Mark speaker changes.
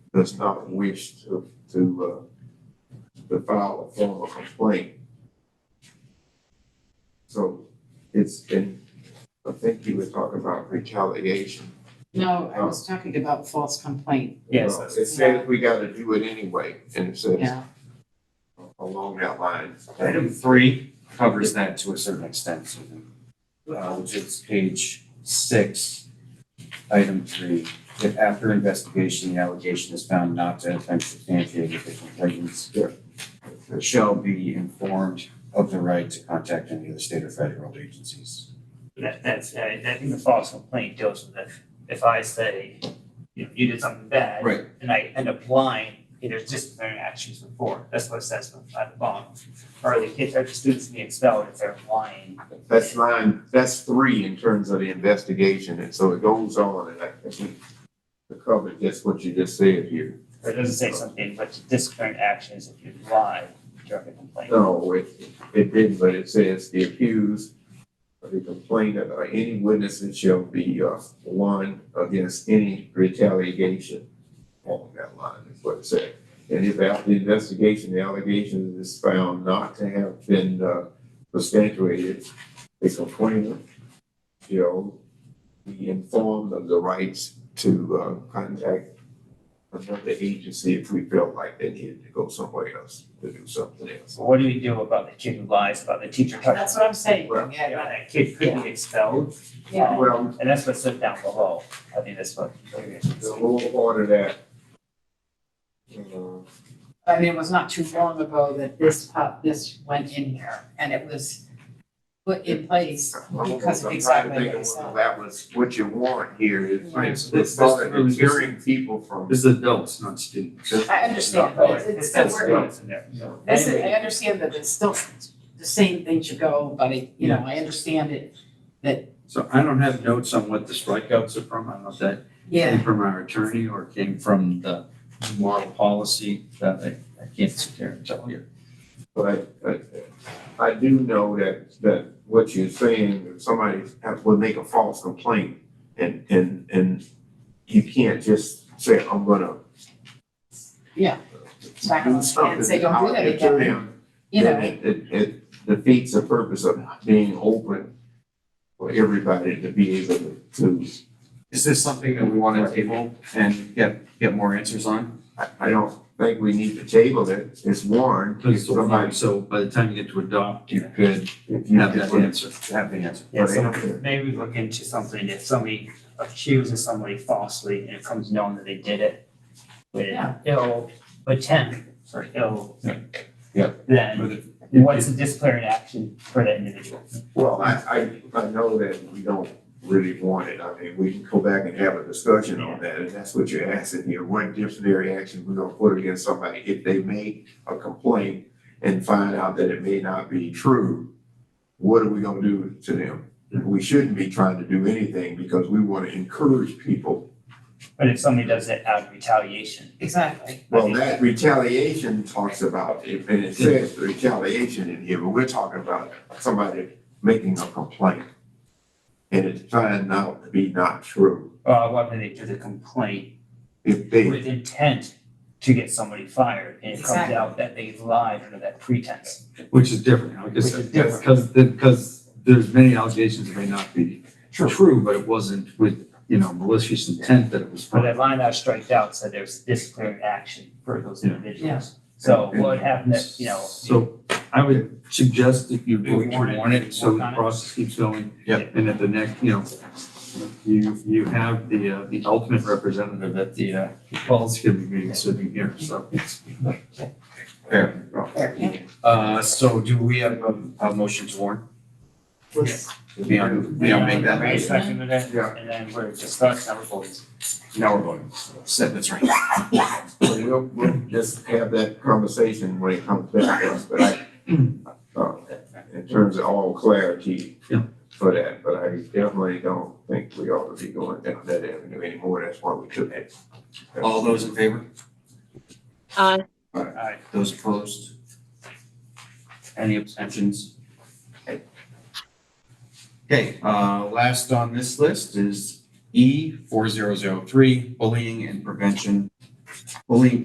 Speaker 1: does not wish to, to, uh, to file a formal complaint. So it's, and I think you were talking about retaliation.
Speaker 2: No, I was talking about false complaint,
Speaker 3: Yes,
Speaker 1: Uh,
Speaker 3: that's-
Speaker 1: It says we gotta do it anyway, and it says
Speaker 2: yeah.
Speaker 1: along that line.
Speaker 3: Item three covers that to a certain extent, Susan, uh, which is page six, item three. If after investigation, the allegation is found not to have been substantiated with the complainants, shall be informed of the right to contact any of the state or federal agencies.
Speaker 4: That, that's, I, I think the false complaint deals with if, if I say, you know, you did something bad.
Speaker 3: Right.
Speaker 4: And I end up lying, you know, just their actions before, that's what it says at the bottom. Or the kids, or the students can be expelled if they're lying.
Speaker 1: That's line, that's three in terms of the investigation, and so it goes on, and I think we covered just what you just said here.
Speaker 4: Or it doesn't say something, but disciplinary actions if you lie during a complaint.
Speaker 1: No, it, it didn't, but it says the accused or the complainant or any witnesses shall be, uh, one against any retaliation along that line, is what it said. And if after the investigation, the allegation is found not to have been, uh, substantiated, the complainant shall be informed of the rights to, uh, contact another agency if we felt like they needed to go somewhere else to do something else.
Speaker 4: So what do we do about the kid who lies, about the teacher touching?
Speaker 2: That's what I'm saying,
Speaker 1: Well,
Speaker 4: Yeah,
Speaker 2: yeah,
Speaker 4: that kid could be expelled,
Speaker 2: yeah.
Speaker 1: Well,
Speaker 4: and that's what's set down below, I think that's what.
Speaker 1: The whole part of that. uh,
Speaker 2: I mean, it was not too long ago that this pop, this went in here and it was put in place
Speaker 1: I'm
Speaker 2: because of
Speaker 1: trying to
Speaker 2: exactly
Speaker 1: think
Speaker 2: what
Speaker 1: of
Speaker 2: you
Speaker 1: what
Speaker 2: said.
Speaker 1: That was, what you want here is,
Speaker 2: Right,
Speaker 1: it's,
Speaker 5: so
Speaker 1: it's
Speaker 5: this-
Speaker 1: part of
Speaker 5: this-
Speaker 1: deterring people from.
Speaker 5: This is adults, not students.
Speaker 2: I understand, but it's- it's still
Speaker 4: That's
Speaker 2: working.
Speaker 4: what's in there.
Speaker 2: This is, I understand that it's still the same thing should go, but it, you know, I understand it,
Speaker 5: So I don't have notes on what the strikeouts are from. I don't know if that
Speaker 2: yeah.
Speaker 5: came from our attorney or came from the moral policy that I, I can't sit there and tell you.
Speaker 1: But I, I do know that, that what you're saying, if somebody has- would make a false complaint and, and, and you can't just say, I'm gonna
Speaker 2: Smack them
Speaker 1: do
Speaker 2: on the hand
Speaker 1: something
Speaker 2: and say, don't do that
Speaker 1: out to
Speaker 2: again,
Speaker 1: them.
Speaker 2: you
Speaker 1: then
Speaker 2: know,
Speaker 1: It, it, it defeats the purpose of being open for everybody to be able to- to,
Speaker 3: Is this something that we want to table and get, get more answers on?
Speaker 1: I, I don't think we need to table it, it's warned. If somebody-
Speaker 5: So by the time you get to adopt, you could
Speaker 1: if you
Speaker 5: have that answer.
Speaker 3: Have the answer.
Speaker 4: Yeah, so maybe look into something, if somebody accuses somebody falsely and it comes known that they did it with
Speaker 2: Yeah.
Speaker 4: ill intent or ill.
Speaker 5: Yeah.
Speaker 1: Yeah.
Speaker 4: Then what's the disciplinary action for that individual?
Speaker 1: Well, I, I, I know that we don't really want it, I mean, we can go back and have a discussion on that, and that's what you're asking here, what disciplinary action we're gonna put against somebody if they make a complaint and find out that it may not be true, what are we gonna do to them? We shouldn't be trying to do anything because we wanna encourage people,
Speaker 4: But if somebody does it out of retaliation,
Speaker 2: exactly.
Speaker 1: well, that retaliation talks about, and it says retaliation in here, but we're talking about somebody making a complaint. And it's turned out to be not true.
Speaker 4: uh, what if they do the complaint
Speaker 1: If they,
Speaker 4: with intent to get somebody fired and it comes
Speaker 2: Exactly.
Speaker 4: out that they lied under that pretense?
Speaker 5: Which is different, I guess,
Speaker 4: Which is different.
Speaker 5: because, because there's many allegations that may not be true, but it wasn't with, you know, malicious intent that it was.
Speaker 4: But that line that I striked out said there's disciplinary action for those
Speaker 5: Yeah.
Speaker 4: individuals. So what would happen if, you know,
Speaker 5: So I would suggest that you
Speaker 4: Maybe
Speaker 5: vote
Speaker 4: warn
Speaker 5: to
Speaker 4: it,
Speaker 5: warn it, so
Speaker 4: work
Speaker 5: the
Speaker 4: on it.
Speaker 5: process keeps going.
Speaker 4: Yep.
Speaker 5: And at the next, you know, you, you have the, uh, the ultimate representative at the, uh, policy committee meeting sitting here, so.
Speaker 3: Uh, so do we have a, a motion to warn? Yeah, yeah, make that.
Speaker 4: May second of that,
Speaker 1: Yeah.
Speaker 4: and then we're discussing our votes.
Speaker 3: Now we're voting. Set, that's right.
Speaker 1: So we'll, we'll just have that conversation when it comes back to us, but I, uh, in terms of all clarity
Speaker 5: Yeah.
Speaker 1: for that, but I definitely don't think we ought to be going down that avenue anymore, that's why we took it.
Speaker 3: All those in favor?
Speaker 6: Aye.
Speaker 4: Aye.
Speaker 3: Those opposed? Any abstentions? Okay. Okay, uh, last on this list is E four zero zero three, bullying and prevention. believe